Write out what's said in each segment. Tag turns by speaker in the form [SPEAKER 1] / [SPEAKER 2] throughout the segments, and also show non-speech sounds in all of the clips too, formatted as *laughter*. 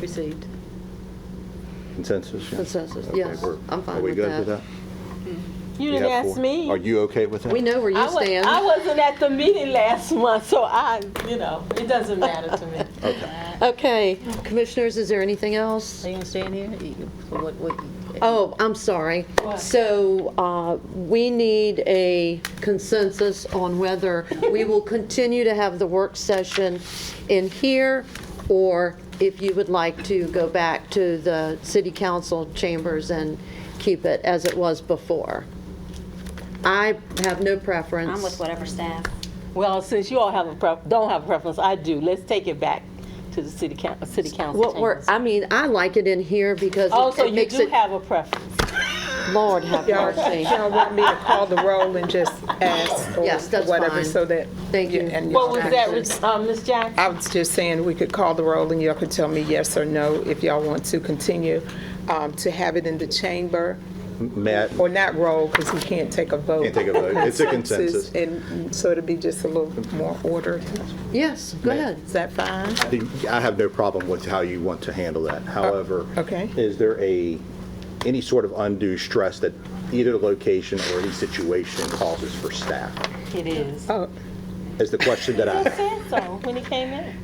[SPEAKER 1] received.
[SPEAKER 2] Consensus, yeah?
[SPEAKER 1] Consensus,
[SPEAKER 2] Okay,
[SPEAKER 1] yes.
[SPEAKER 2] we're-
[SPEAKER 1] I'm fine
[SPEAKER 2] Are we
[SPEAKER 1] with
[SPEAKER 2] good with
[SPEAKER 1] that.
[SPEAKER 2] that?
[SPEAKER 3] You
[SPEAKER 2] We
[SPEAKER 3] didn't
[SPEAKER 2] have
[SPEAKER 3] ask
[SPEAKER 2] four.
[SPEAKER 3] me.
[SPEAKER 2] Are you okay with that?
[SPEAKER 1] We know where
[SPEAKER 3] I,
[SPEAKER 1] you
[SPEAKER 3] was, I
[SPEAKER 1] stand.
[SPEAKER 3] wasn't at the meeting last month, so I, you know, it doesn't matter to me.
[SPEAKER 1] Okay, commissioners, is there anything else?
[SPEAKER 4] Are you gonna stand here? You- What, what?
[SPEAKER 1] Oh, I'm sorry.
[SPEAKER 3] What?
[SPEAKER 1] So uh, we need a consensus on whether we will continue to have the work session in here, or if you would like to go back to the city council chambers and keep it as it was before. I have no preference.
[SPEAKER 5] I'm with whatever staff.
[SPEAKER 3] Well, since you all have a pref, don't have a preference, I do. Let's take it back to the city coun, city council
[SPEAKER 1] What we're,
[SPEAKER 3] chambers.
[SPEAKER 1] I mean, I like it in here because
[SPEAKER 3] Oh,
[SPEAKER 1] it-
[SPEAKER 3] so
[SPEAKER 1] it
[SPEAKER 3] you
[SPEAKER 1] makes
[SPEAKER 3] do
[SPEAKER 1] it,
[SPEAKER 3] have a preference.
[SPEAKER 1] Lord have mercy.
[SPEAKER 6] Y'all want me to call the roll and just ask
[SPEAKER 1] *laughs*
[SPEAKER 6] or
[SPEAKER 1] Yes, that's
[SPEAKER 6] whatever
[SPEAKER 1] fine.
[SPEAKER 6] so that.
[SPEAKER 1] Thank you.
[SPEAKER 6] and
[SPEAKER 3] What
[SPEAKER 6] y'all
[SPEAKER 3] was
[SPEAKER 6] can-
[SPEAKER 3] that, um, Ms. Jackson?
[SPEAKER 6] I was just saying we could call the roll and y'all could tell me yes or no if y'all want to continue um, to have it in the chamber
[SPEAKER 2] Matt,
[SPEAKER 6] or not roll because we can't take a vote.
[SPEAKER 2] Can't take a vote. It's a consensus.
[SPEAKER 6] And so it'd be just a little more ordered.
[SPEAKER 1] Yes, go ahead.
[SPEAKER 6] Is that fine?
[SPEAKER 2] I have no problem with how you want to handle that. However,
[SPEAKER 6] okay.
[SPEAKER 2] is there a, any sort of undue stress that either location or any situation causes for staff?
[SPEAKER 3] It is.
[SPEAKER 6] Oh,
[SPEAKER 2] Is the question that *laughs*
[SPEAKER 3] Just said
[SPEAKER 2] I,
[SPEAKER 3] so when he came in.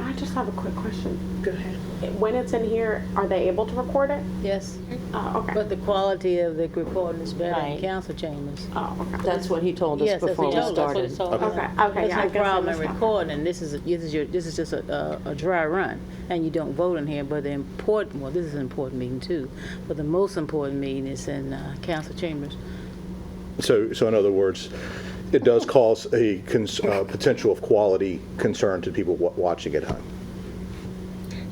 [SPEAKER 7] I just have a quick question.
[SPEAKER 6] go ahead.
[SPEAKER 7] When it's in here, are they able to record it?
[SPEAKER 4] Yes,
[SPEAKER 7] Oh, okay.
[SPEAKER 4] but the quality of the reporting is better in
[SPEAKER 3] Right.
[SPEAKER 4] council chambers.
[SPEAKER 7] Oh, okay.
[SPEAKER 1] That's what he told
[SPEAKER 4] Yes,
[SPEAKER 1] us
[SPEAKER 4] that's
[SPEAKER 1] before
[SPEAKER 4] what he
[SPEAKER 1] we
[SPEAKER 4] told us.
[SPEAKER 1] started.
[SPEAKER 7] Okay, okay,
[SPEAKER 4] There's
[SPEAKER 7] yeah, I
[SPEAKER 4] no
[SPEAKER 7] guess I
[SPEAKER 4] problem in
[SPEAKER 7] missed that.
[SPEAKER 4] recording, this is, this is your, this is just a, a a dry run, and you don't vote in here, but the important, well, this is an important meeting too, but the most important meeting is in uh, council chambers.
[SPEAKER 2] so, so in other words, it does cause a cons- uh, potential of quality concern to people wa- watching at home.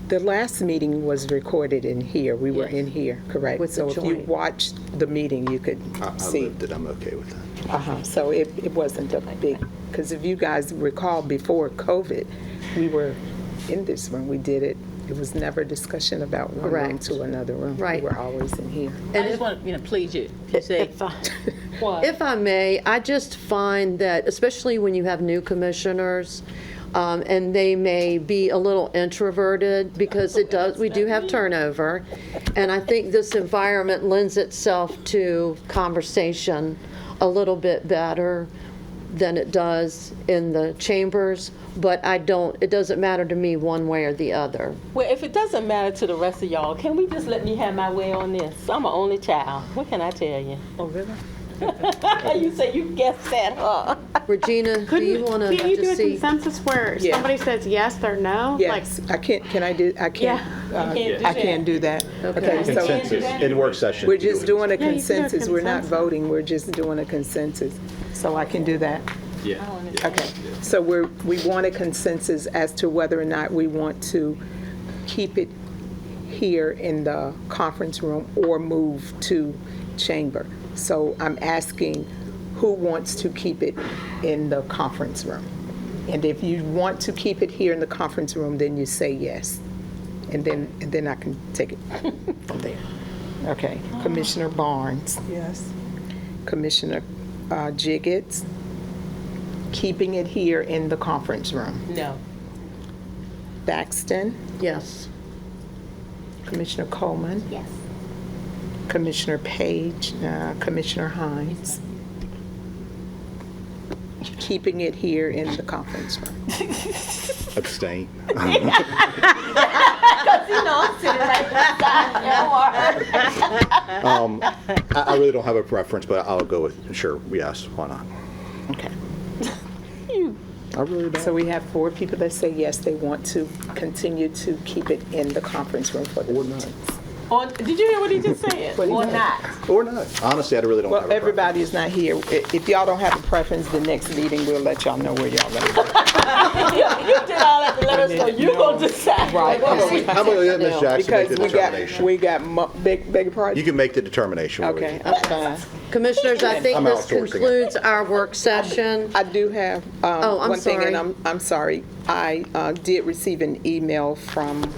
[SPEAKER 6] The last meeting was recorded in here. We were
[SPEAKER 4] Yes.
[SPEAKER 6] in here, correct?
[SPEAKER 1] With the
[SPEAKER 6] So if you
[SPEAKER 1] joint.
[SPEAKER 6] watched the meeting, you could
[SPEAKER 2] I- I
[SPEAKER 6] see.
[SPEAKER 2] lived it, I'm okay with that.
[SPEAKER 6] Uh-huh, so it, it wasn't a big, because if you guys recall, before COVID, we were in this room, we did it. It was never discussion about one room
[SPEAKER 1] Correct.
[SPEAKER 6] to another room.
[SPEAKER 1] Right.
[SPEAKER 6] We were always in here.
[SPEAKER 4] I just want, to you know, please you, if you say,
[SPEAKER 1] If I-
[SPEAKER 3] What?
[SPEAKER 1] If I may, I just find that, especially when you have new commissioners, um, and they may be a little introverted, because it does, we do have turnover, and I think this environment lends itself to conversation a little bit better than it does in the chambers, but I don't, it doesn't matter to me one way or the other.
[SPEAKER 3] Well, if it doesn't matter to the rest of y'all, can we just let me have my way on this? I'm an only child. What can I tell you?
[SPEAKER 4] oh, really?
[SPEAKER 3] *laughs* You say you guessed that, huh?
[SPEAKER 1] Regina, do you
[SPEAKER 7] Couldn't,
[SPEAKER 1] want to
[SPEAKER 7] can't you do a
[SPEAKER 1] just see?
[SPEAKER 7] consensus where
[SPEAKER 6] Yeah.
[SPEAKER 7] somebody says yes or no? Like,
[SPEAKER 6] Yes, I can't, can I do, I can't,
[SPEAKER 7] Yeah.
[SPEAKER 6] uh,
[SPEAKER 3] You can't do
[SPEAKER 6] I can't
[SPEAKER 3] that.
[SPEAKER 6] do that. Okay, so
[SPEAKER 2] Consensus, in work session.
[SPEAKER 6] we're just doing a
[SPEAKER 7] Yeah, you can do a
[SPEAKER 6] consensus, we're not
[SPEAKER 7] consensus.
[SPEAKER 6] voting, we're just doing a consensus. So I can do that?
[SPEAKER 8] Yeah.
[SPEAKER 6] Okay, so we're, we want a consensus as to whether or not we want to keep it here in the conference room or move to chamber. So I'm asking who wants to keep it in the conference room? And if you want to keep it here in the conference room, then you say yes. And then, and then I can take it from there. Okay, Commissioner Barnes. Yes. Commissioner uh, Jiggets keeping it here in the conference room.
[SPEAKER 3] No.
[SPEAKER 6] Baxton,
[SPEAKER 1] Yes.
[SPEAKER 6] Commissioner Coleman,
[SPEAKER 5] Yes.
[SPEAKER 6] Commissioner Page, uh, Commissioner Hines. Keeping it here in the conference room. *laughs*
[SPEAKER 2] Abstain. Um, I I really don't have a preference, but I'll go with, sure, yes, why not?
[SPEAKER 6] Okay.
[SPEAKER 2] *laughs* I really don't.
[SPEAKER 6] So we have four people that say yes, they want to continue to keep it in the conference room for the meetings.
[SPEAKER 3] Or, did you hear what he just said?
[SPEAKER 6] What he
[SPEAKER 3] *laughs* Or
[SPEAKER 6] said.
[SPEAKER 3] not?
[SPEAKER 2] Or not. Honestly, I really don't have a
[SPEAKER 6] Well,
[SPEAKER 2] preference.
[SPEAKER 6] everybody is not here. I- If y'all don't have a preference, the next meeting, we'll let y'all know where y'all are.
[SPEAKER 3] You *laughs* you did all that to let us know. You're going to decide. *laughs*
[SPEAKER 6] Right.
[SPEAKER 2] How about we- how about we let
[SPEAKER 6] *laughs*
[SPEAKER 2] Ms. Jackson make the
[SPEAKER 6] Because we got,
[SPEAKER 2] determination?
[SPEAKER 6] we got, mo- beg, beg your
[SPEAKER 2] You
[SPEAKER 6] pardon?
[SPEAKER 2] can make the determination. Lori.
[SPEAKER 6] Okay, I'm fine.
[SPEAKER 1] Commissioners, I think
[SPEAKER 2] I'm
[SPEAKER 1] this
[SPEAKER 2] outsourcing it.
[SPEAKER 1] concludes our work session.
[SPEAKER 6] I do have
[SPEAKER 1] Oh,
[SPEAKER 6] um,
[SPEAKER 1] I'm
[SPEAKER 6] one thing,
[SPEAKER 1] sorry.
[SPEAKER 6] and I'm, I'm sorry. I uh, did receive an email from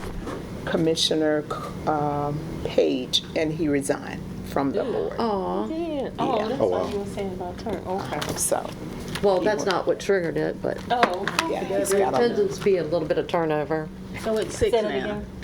[SPEAKER 6] Commissioner um, Page, and he resigned from
[SPEAKER 1] *gasps*
[SPEAKER 6] the board,
[SPEAKER 1] Aw,
[SPEAKER 3] Yeah. Oh, that's
[SPEAKER 2] Oh,
[SPEAKER 3] what
[SPEAKER 2] wow.
[SPEAKER 3] you were saying about turn. Okay.
[SPEAKER 6] so,
[SPEAKER 1] well, that's not what triggered it, but
[SPEAKER 3] Oh.
[SPEAKER 6] yeah. he's
[SPEAKER 1] there
[SPEAKER 6] got a-
[SPEAKER 1] tends to be a little bit of turnover.
[SPEAKER 4] so "Oh, it's six
[SPEAKER 3] Say that
[SPEAKER 4] now.
[SPEAKER 3] again.